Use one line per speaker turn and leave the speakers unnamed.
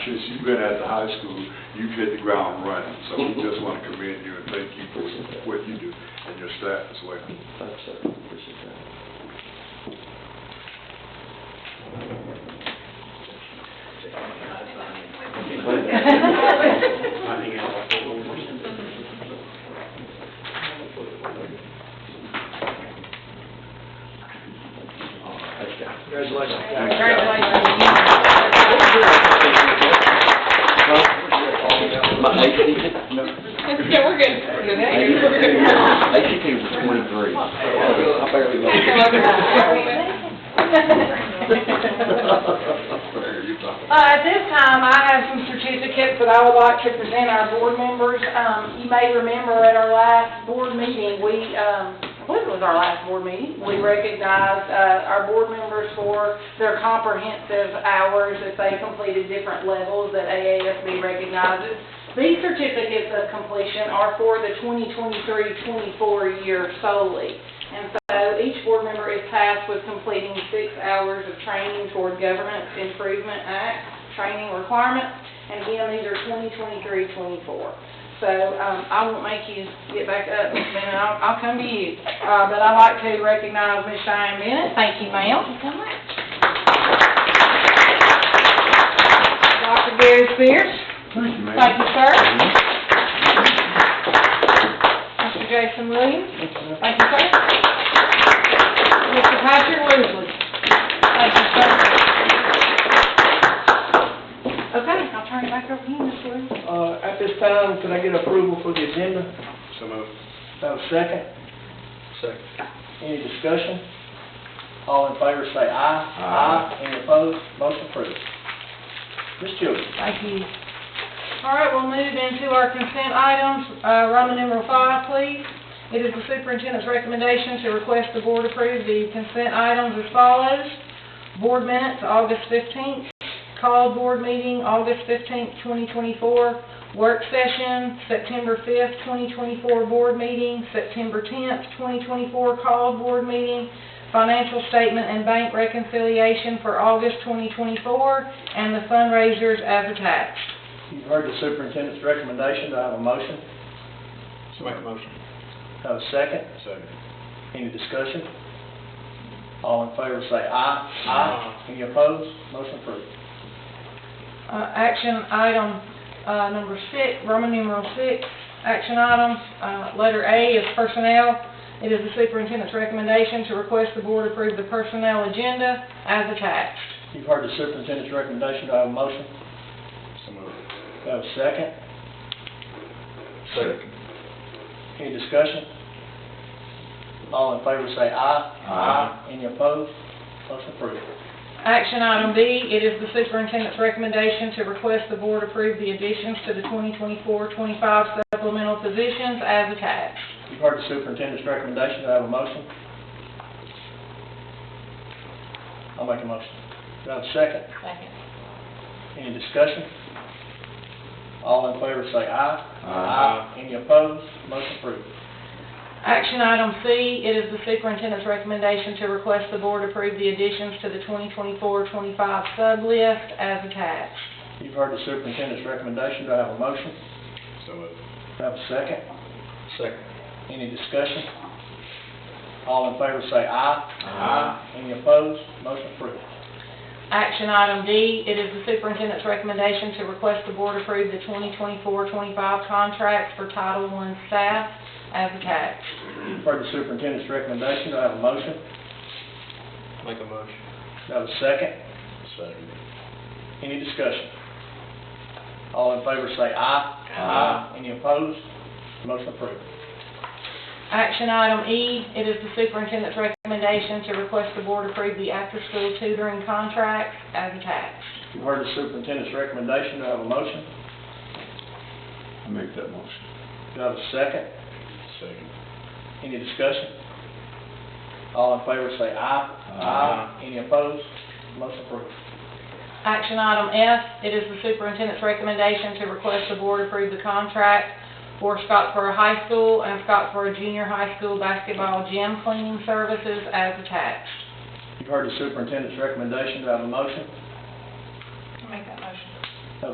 Since you've been at the high school, you've hit the ground running, so we just want to commend you and thank you for what you do and your staff as well.
Thanks, sir, appreciate that. Thanks, guys.
Congratulations.
My ACT,
Yeah, we're good. We're good. We're
ACT was twenty-three. I barely
Mayor, you talk.
Uh, At this time, I have some certificates that I would like to present our board members. Um, You may remember at our last board meeting, we, um, I believe it was our last board meeting, we recognized uh, our board members for their comprehensive hours that they completed different levels that AASB recognizes. These certificates of completion are for the 2023-24 year solely. And so each board member is tasked with completing six hours of training toward Government Improvement Act training requirements. And again, these are 2023, 24. So um, I won't make you get back up, Ms. Bennett, I'll, I'll come to you. Uh, But I'd like to recognize Ms. Cheyenne Bennett. Thank you, ma'am. Dr. Gary Spears.
Thank you,
Thank
ma'am.
you, sir. Mr. Jason Williams. Thank you, sir. Mr. Patrick Woodley. Thank you, sir. Okay, I'll turn it back over to you, Mr. Williams.
Uh, At this time, could I get approval for the agenda?
So moved.
Have a second?
Second.
Any discussion? All in favor say aye.
Aye.
Any opposed? Motion approved. Ms. Childers?
Thank you. All right, we'll move into our consent items. Uh, Roman numeral five, please. It is the superintendent's recommendation to request the board approve the consent items as follows. Board minutes, August fifteenth. Call board meeting, August fifteenth, twenty twenty-four. Work session, September fifth, twenty twenty-four board meeting, September tenth, twenty twenty-four call board meeting. Financial statement and bank reconciliation for August twenty twenty-four, and the fundraisers as attached.
You've heard the superintendent's recommendation. Do I have a motion?
Make a motion.
Have a second?
Second.
Any discussion? All in favor say aye. Aye. Any opposed? Motion approved.
Uh, Action item uh, number six, Roman numeral six, action item, uh, letter A is personnel. It is the superintendent's recommendation to request the board approve the personnel agenda as attached.
You've heard the superintendent's recommendation. Do I have a motion?
So moved.
Do I have a second?
Second.
Any discussion? All in favor say aye.
Aye.
Any opposed? Motion approved.
Action item B, it is the superintendent's recommendation to request the board approve the additions to the 2024-25 supplemental positions as attached.
You've heard the superintendent's recommendation, do I have a motion? I'll make a motion. Do I have a second?
Second.
Any discussion? All in favor say aye.
Aye.
Any opposed? Motion approved.
Action item C, it is the superintendent's recommendation to request the board approve the additions to the 2024-25 sub list as attached.
You've heard the superintendent's recommendation, do I have a motion?
So moved.
Do I have a second?
Second.
Any discussion? All in favor say aye.
Aye.
Any opposed? Motion approved.
Action item D, it is the superintendent's recommendation to request the board approve the 2024-25 contract for Title I staff as attached.
You've heard the superintendent's recommendation, do I have a motion?
Make a motion.
Do I have a second?
Second.
Any discussion? All in favor say aye.
Aye.
Any opposed? Motion approved.
Action item E, it is the superintendent's recommendation to request the board approve the after-school tutoring contract as attached.
You've heard the superintendent's recommendation, do I have a motion?
I make that motion.
Do I have a second?
Second.
Any discussion? All in favor say aye.
Aye.
Any opposed? Motion approved.
Action item F, it is the superintendent's recommendation to request the board approve the contract for Scottsboro High School and Scottsboro Junior High School basketball gym cleaning services as attached.
You've heard the superintendent's recommendation, do I have a motion?